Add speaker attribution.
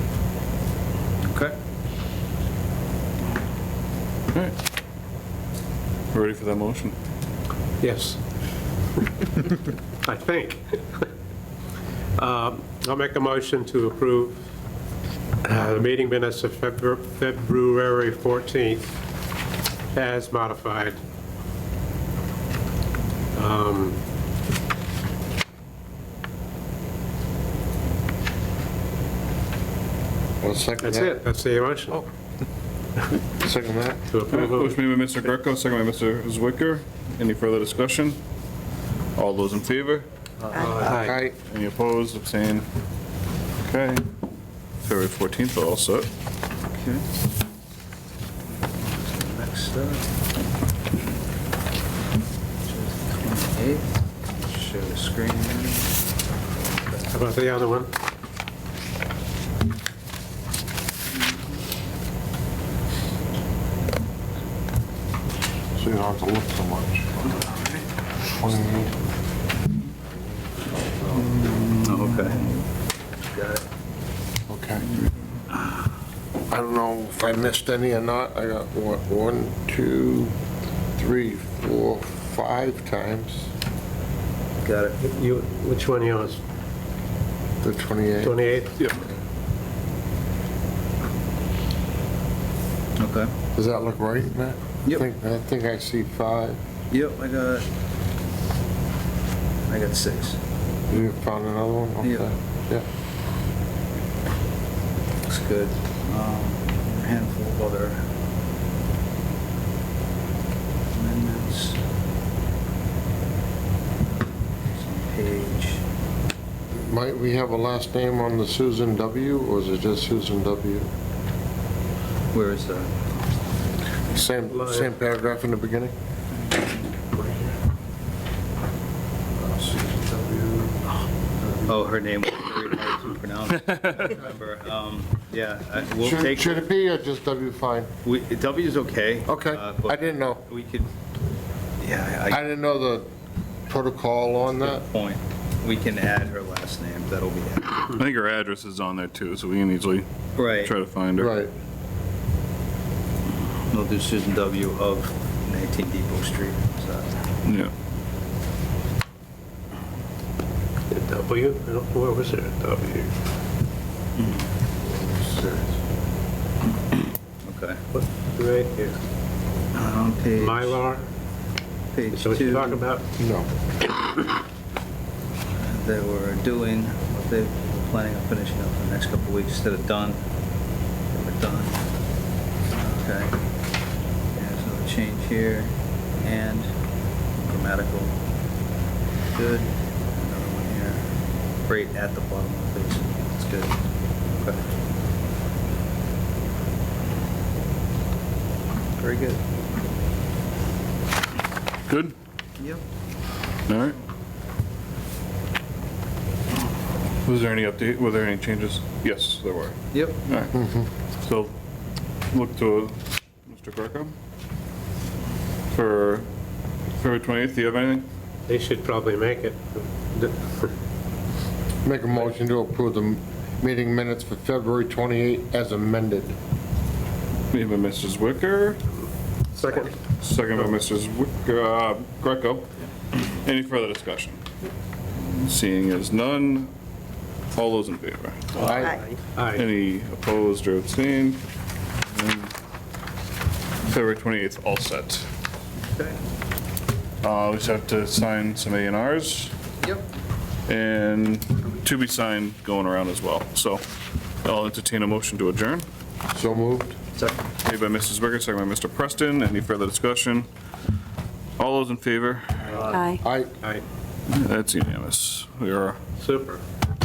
Speaker 1: All right. Ready for that motion?
Speaker 2: Yes. I think. Um, I'll make a motion to approve uh, the meeting minutes of Febru- February 14th as modified. Um,
Speaker 3: I'll second
Speaker 2: That's
Speaker 3: that.
Speaker 2: it, that's the
Speaker 4: Oh.
Speaker 2: motion.
Speaker 3: Second that.
Speaker 2: To approve,
Speaker 1: Motion made by Mr. Greco, second by Mr. Zwicker. Any further discussion? All those in favor?
Speaker 2: aye.
Speaker 3: Aye.
Speaker 1: Any opposed, abstained? Okay. February 14th, we're all set.
Speaker 4: Next up. Twenty-eighth, show the screen.
Speaker 2: How about the other one?
Speaker 3: So you don't have to look so much. What do you need?
Speaker 4: Oh, okay. Got it.
Speaker 3: Okay. I don't know if I missed any or not. I got what, one, two, three, four, five times
Speaker 4: Got it.
Speaker 2: You, which one yours?
Speaker 3: the 28.
Speaker 2: 28?
Speaker 1: Yep.
Speaker 4: Okay.
Speaker 3: Does that look right, Matt?
Speaker 4: Yep.
Speaker 3: I think- I think I see five.
Speaker 4: Yep, I got, I got six.
Speaker 3: You found another one? Okay.
Speaker 4: Yep.
Speaker 3: Yeah.
Speaker 4: Looks good. Um, a Handful of other amendments. Some Page.
Speaker 3: Might we have a last name on the Susan W., or is it just Susan W.?
Speaker 4: Where is that?
Speaker 3: Same,
Speaker 2: Lion.
Speaker 3: same paragraph in the beginning?
Speaker 4: Oh, her name was very hard to pronounce. I don't remember. Um, Yeah, I- we'll
Speaker 3: Should-
Speaker 4: take,
Speaker 3: Should it be or just W fine?
Speaker 4: we- W is okay.
Speaker 3: Okay,
Speaker 4: uh,
Speaker 3: I
Speaker 4: but
Speaker 3: didn't know.
Speaker 4: We could, yeah,
Speaker 3: I
Speaker 4: I,
Speaker 3: didn't know the protocol on that.
Speaker 4: good point. We can add her last name, that'll be it.
Speaker 1: I think her address is on there too, so we can easily
Speaker 4: Right,
Speaker 1: try to find her.
Speaker 3: Right.
Speaker 4: we'll do Susan W. of 19 Depot Street. So,
Speaker 1: Yeah.
Speaker 2: W? I don't- Where was it? W.
Speaker 4: Okay.
Speaker 2: What- Right here.
Speaker 4: On Uh, page,
Speaker 2: Mylar,
Speaker 4: page
Speaker 2: so what you
Speaker 4: two,
Speaker 2: talking about?
Speaker 3: No.
Speaker 4: they were doing, what they were planning on finishing up in the next couple of weeks instead of done. They were done. Okay. There's another change here, and grammatical. Good. Another one here. Great at the bottom of this. It's good. Okay. Very good.
Speaker 1: Good?
Speaker 4: Yep.
Speaker 1: All right. Was there any update, were there any changes? Yes, there were.
Speaker 4: Yep.
Speaker 1: All right. So look to Mr. Greco for February 28th. Do you have anything?
Speaker 2: They should probably make it.
Speaker 3: Make a motion to approve the meeting minutes for February 28 as amended.
Speaker 1: Made by Mrs. Wicker,
Speaker 2: Second?
Speaker 1: second by Mrs. Wicker, uh, Greco. Any further discussion? Seeing as none, all those in favor?
Speaker 3: Aye.
Speaker 2: Aye.
Speaker 1: Any opposed or abstained? And February 28th, all set.
Speaker 4: Okay.
Speaker 1: Uh, We just have to sign some A and Rs.
Speaker 4: Yep.
Speaker 1: and to be signed going around as well. So I'll entertain a motion to adjourn.
Speaker 3: So moved?
Speaker 4: Second.
Speaker 1: Made by Mrs. Zwicker, second by Mr. Preston. Any further discussion? All those in favor?
Speaker 5: Aye.
Speaker 3: Aye.
Speaker 2: Aye,
Speaker 1: That's unanimous. We are
Speaker 2: super.